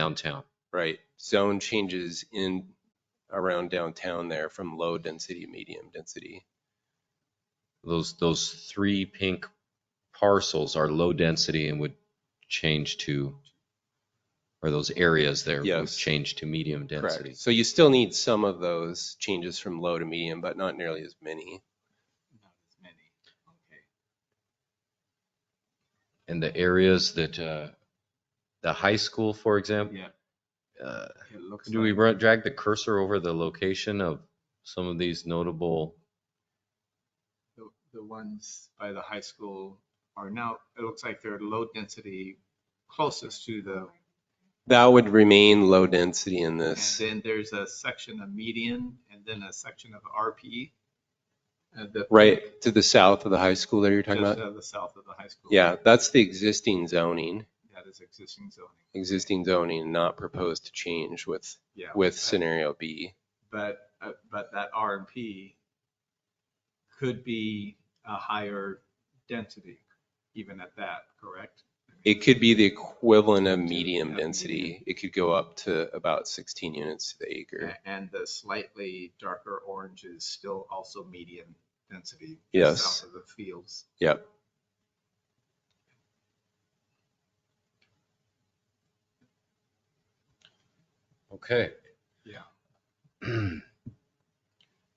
downtown. right? Zone changes in around downtown there from low density, medium density. Those, those three pink parcels are low density and would change to, or those areas there would Yes. change to medium density. Correct. So you still need some of those changes from low to medium, but not nearly as many. Not as many. Okay. And the areas that, uh, the high school, for example, Yeah, uh, it looks do we like run- drag the cursor over the location of some of these notable? the, the ones by the high school are now, it looks like they're low density closest to the, That would remain low density in and this. then there's a section of median and then a section of RP. uh, the- Right to the south of the high school there you're Just talking about? to the south of the high school. Yeah, that's the existing zoning, That is existing zoning. existing zoning, not proposed to change with, Yeah. with I- scenario B. But, uh, but that R and P could be a higher density even at that, correct? It could be the equivalent of To- medium yeah, density. It could go up to about 16 units to the acre. A- And the slightly darker orange is still also medium density. just Yes. South of the fields. Yep. Okay. Yeah.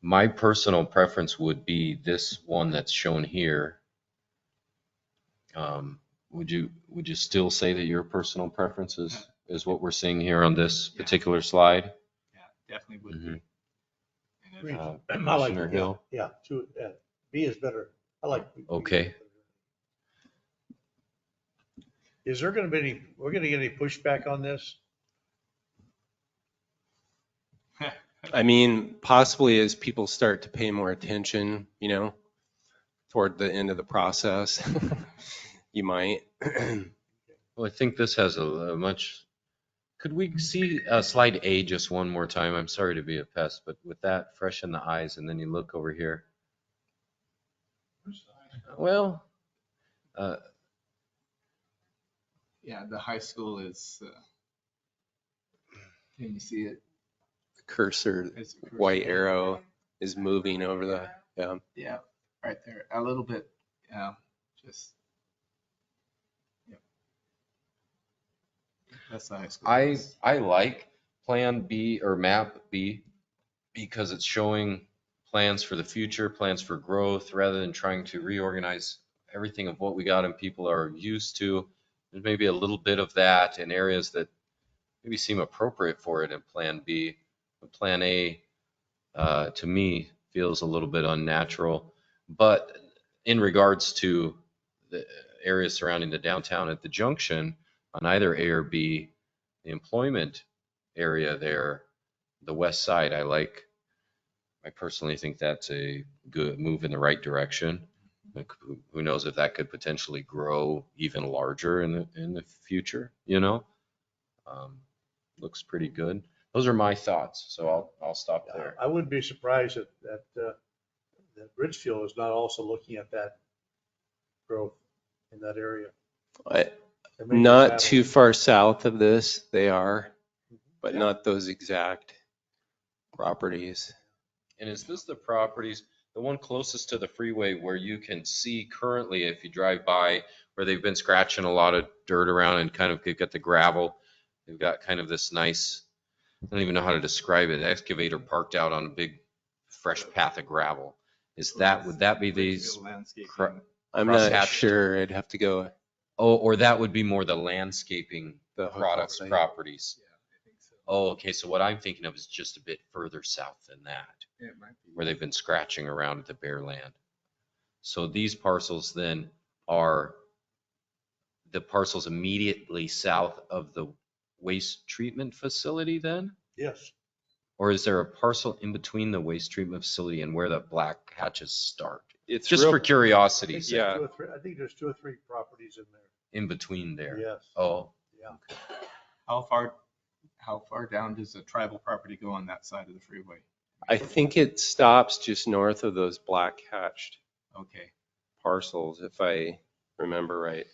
My personal preference would be this one that's shown here. Um, would you, would you still say that your personal preference is, is what we're seeing here on this Yeah. particular slide? Yeah, definitely would Mhm. be. Mm-hmm. And if- Uh, I like Commissioner it, yeah, Hill? yeah, two, uh, B is better, I like. B. Okay. Is there gonna be any, we're gonna get any pushback on this? I mean, possibly as people start to pay more attention, you know, toward the end of the process, you might. Well, I think this has a a much, could we see uh, slide A just one more time? I'm sorry to be a pest, but with that fresh in the eyes, and then you look over here. Well, uh, Yeah, the high school is, uh, can you see it? Cursor, It's a cursor. white arrow is moving over the, yeah. Yeah, right there, a little bit, yeah, just. Yep. That's the high school. I, I like Plan B or Map B because it's showing plans for the future, plans for growth, rather than trying to reorganize everything of what we got and people are used to. There's maybe a little bit of that in areas that maybe seem appropriate for it in Plan B. But Plan A, uh, to me, feels a little bit unnatural. But in regards to the areas surrounding the downtown at the junction, on either A or B, the employment area there, the west side, I like. I personally think that's a good move in the right direction. Like, who- Who knows if that could potentially grow even larger in the, in the future, you know? Um, Looks pretty good. Those are my thoughts, so I'll, I'll stop there. I wouldn't be surprised that, that, uh, that Ridgefield is not also looking at that growth in that area. I- That may be Not bad. too far south of this, they are, but not those exact properties. And is this the properties, the one closest to the freeway where you can see currently if you drive by, where they've been scratching a lot of dirt around and kind of they've got the gravel? They've got kind of this nice, I don't even know how to describe it, excavator parked out on a big fresh path of gravel. Is that, would that be these? Landscaping. I'm not Crosshatched. sure. I'd have to go Oh, or that would be more the landscaping the. hook products, site. properties. Yeah, I think so. Oh, okay, so what I'm thinking of is just a bit further south than that. It might be. where they've been scratching around at the bare land. So these parcels then are the parcels immediately south of the waste treatment facility then? Yes, Or is there a parcel in between the waste treatment facility and where the black hatches start? It's Just real- for I curiosity, think there's Yeah. two or three- I think there's two or three properties in there, in between there. yes. Oh, Yeah. How far, how far down does the tribal property go on that side of the freeway? I think it stops just north of those black hatched Okay, parcels, if I remember right.